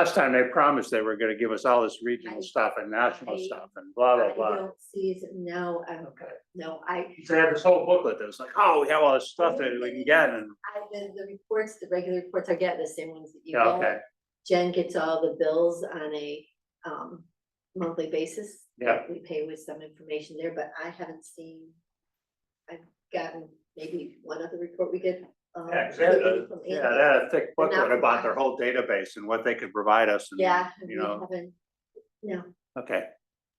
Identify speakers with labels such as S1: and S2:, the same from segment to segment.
S1: Last time they promised they were gonna give us all this regional
S2: I-
S1: stuff and national
S2: I-
S1: stuff and blah,
S2: I
S1: blah, blah.
S2: don't see, it. no, um,
S1: Okay.
S2: no, I,
S1: They had this whole booklet that was like, oh, we have all this stuff that we can get and,
S2: I, the, the reports, the regular reports I get, the same ones that you
S1: yeah, okay,
S2: get. Jen gets all the bills on a, um, monthly basis.
S1: Yeah.
S2: We pay with some information there, but I haven't seen, I've gotten maybe one other report we get. um,
S1: Yeah, 'cause they had a-
S2: from
S1: yeah,
S2: Andy.
S1: they had a thick
S2: But not
S1: booklet about their
S2: provided.
S1: whole database and what they could provide us and,
S2: Yeah, we
S1: you know,
S2: haven't, no,
S1: okay,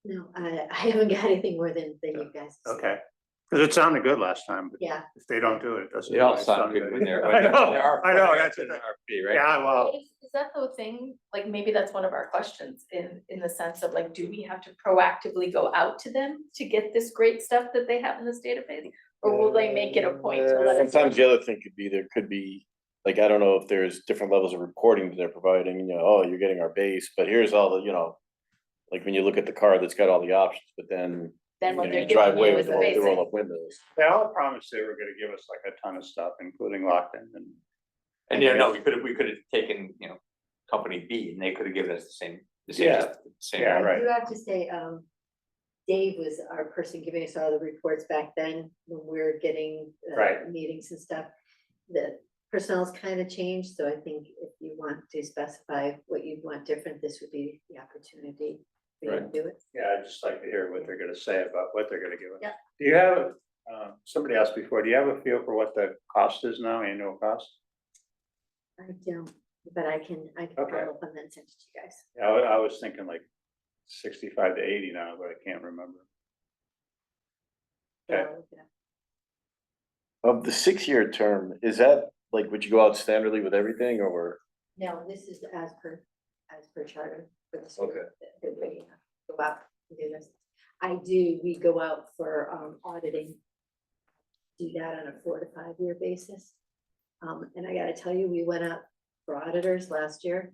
S2: no, I, I haven't got anything more than, than you guys.
S1: okay. Cause it sounded good last time, but
S2: Yeah.
S1: if they don't do it, it doesn't.
S3: They all
S1: always
S3: sound good when they're. when
S1: I
S3: they're-
S1: know,
S3: they're our-
S1: I know,
S3: they're
S1: that's
S3: an
S1: it.
S3: RFP, right?
S1: Yeah, well,
S4: Is, is that the thing, like, maybe that's one of our questions in, in the sense of like, do we have to proactively go out to them to get this great stuff that they have in this database? Or will they make it a point to let us?
S5: Sometimes the other thing could be, there could be, like, I don't know if there's different levels of reporting that they're providing, you know, oh, you're getting our base, but here's all the, you know. Like when you look at the card that's got all the options, but then.
S4: Then what
S5: you know,
S4: they're
S5: you
S4: giving
S5: drive away
S4: you
S5: with
S4: is
S5: the roll- the
S4: basic.
S5: Roll up windows.
S1: they all promised they were gonna give us like a ton of stuff, including Lockton and,
S3: And you know, we could have, we could have taken, you know, company B and they could have given us the same, the same,
S1: Yeah.
S3: stuff, the same.
S1: Yeah,
S2: I
S1: right.
S2: do have to say, um, Dave was our person giving us all the reports back then, when we were getting uh,
S1: Right.
S2: meetings and stuff. The personnel's kind of changed, so I think if you want to specify what you'd want different, this would be the opportunity for you to do it.
S1: yeah, I'd just like to hear what they're gonna say about what they're gonna give us.
S2: Yeah.
S1: Do you have, um, somebody asked before, do you have a feel for what the cost is now, annual cost?
S2: I don't, but I can, I can
S1: Okay.
S2: follow up on that and send it to you guys.
S1: Yeah, I, wa- I was thinking like sixty-five to eighty now, but I can't remember. Okay.
S2: So, yeah.
S5: Of the six-year term, Um, is that, like, would you go out standardly with everything, or?
S2: No, this is as per, as per charter for the school.
S5: Okay.
S2: that- that we Go out and do this. I do, we go out for um auditing. Do that on a four to five year basis. Um, and I gotta tell you, we went out for auditors last year.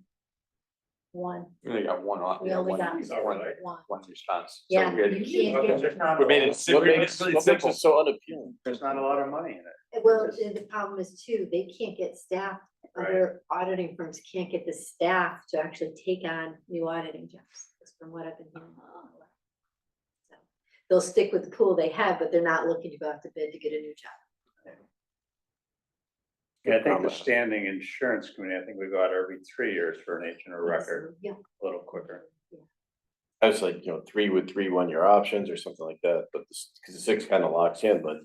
S2: One,
S3: We only got one off,
S2: We
S3: you know,
S2: only
S3: one,
S2: got
S3: one,
S2: one.
S3: one response. So
S2: Yeah,
S3: we had-
S2: you can't get-
S3: We made it, sim-
S5: What
S3: we made it
S5: makes,
S3: really
S5: what makes
S3: simple.
S5: it so unappealing?
S1: There's not a lot of money in it.
S2: Well, the the problem is too, they can't get staff,
S1: Right.
S2: other auditing firms can't get the staff to actually take on new auditing jobs, is from what I've been hearing. So, They'll stick with the pool they have, but they're not looking to go out to bid to get a new job.
S1: Yeah, I think the
S5: Promise.
S1: standing insurance committee, I think we go out every three years for an agent or record,
S2: Yeah.
S1: a little quicker.
S5: I was like, you know, three with three one-year options or something like that, but this, cause the six kind of locks in, but.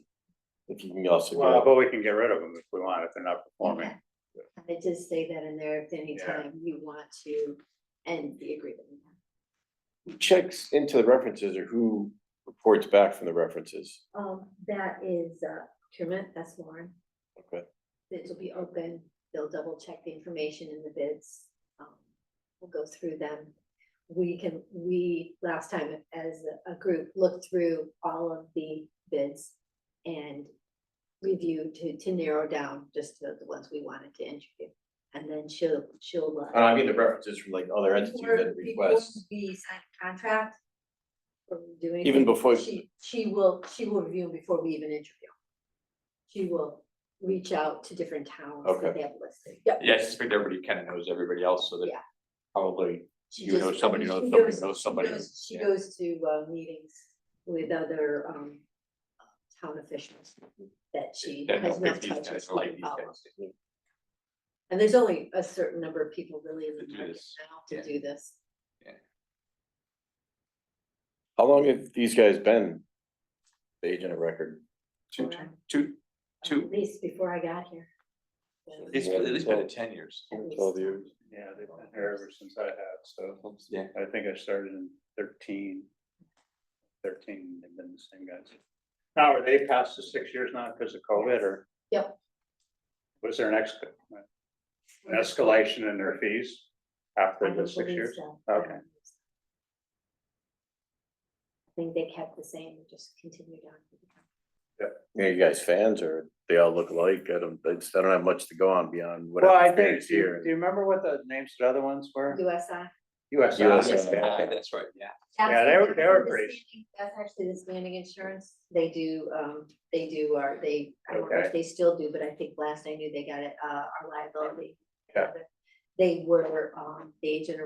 S5: If you can also. go
S1: Well,
S5: out-
S1: but we can get rid of them if we want, if they're not performing.
S2: Okay. And They just say that in there, if
S1: Yeah.
S2: anytime you want to end the agreement.
S5: Who checks into the references or who reports back from the references?
S2: Um, that is, uh, procurement, that's Lauren.
S5: Okay.
S2: bids will be open, they'll double check the information in the bids. um, We'll go through them. We can, we, last time as a a group, looked through all of the bids and reviewed to, to narrow down just the the ones we wanted to interview. And then she'll, she'll. uh,
S5: Uh, I mean, the references from like other entities
S2: before-
S5: that request.
S2: before We sign a contract. Or do anything.
S5: Even before-
S2: She, she will, she will review before we even interview. She will reach out to different towns that
S5: Okay.
S2: they have listed. Yep.
S3: Yeah, I suspect everybody kind of knows everybody else, so that
S2: Yeah.
S3: probably
S2: She
S3: you know
S2: just-
S3: somebody
S2: she
S3: knows somebody
S2: goes-
S3: knows
S2: she
S3: somebody.
S2: goes- She
S3: Yeah.
S2: goes to, uh, meetings with other, um, town officials that she
S3: that
S2: has
S3: know
S2: not
S3: if these
S2: touched.
S3: guys
S2: with
S3: like these
S2: about.
S3: guys.
S2: And there's only a certain number of people really in
S3: To
S2: the
S3: do
S2: market
S3: this.
S2: now
S3: Yeah.
S2: to do this.
S5: How long have these guys been? The agent of record?
S3: Two,
S2: Or,
S3: two, two,
S2: At least before I got here. So-
S3: it's at least been ten years.
S2: At least.
S5: Twelve years.
S1: Yeah, they've been there ever since I have, so
S3: Yeah,
S1: I think I started in thirteen. Thirteen, they've been the same guys. Now, are they past the six years now because of COVID or?
S2: Yep.
S1: Was there an ex- an escalation in their fees
S2: I
S1: after
S2: don't
S1: the six
S2: believe
S1: years?
S2: so. I don't
S1: Okay.
S2: believe so. I think they kept the same, and just continued on. with the company.
S5: Are you guys fans or they all look alike? I don't, I just- I don't have much to go on beyond what
S1: Well,
S5: I've
S1: I think,
S5: experienced
S1: do you do
S5: here.
S1: you remember what the names of the other ones were?
S2: USI.
S1: USI.
S5: USI.
S3: Ah,
S1: Yeah.
S3: that's right, yeah.
S1: Yeah, they were- they were
S2: That's
S1: great.
S2: the standing- That's actually the standing insurance. They do, um, they do, our they, I don't know if
S1: Okay.
S2: they still do, but I think last I knew they got it, uh, our liability.
S1: Yeah.
S2: they were, um, the agent or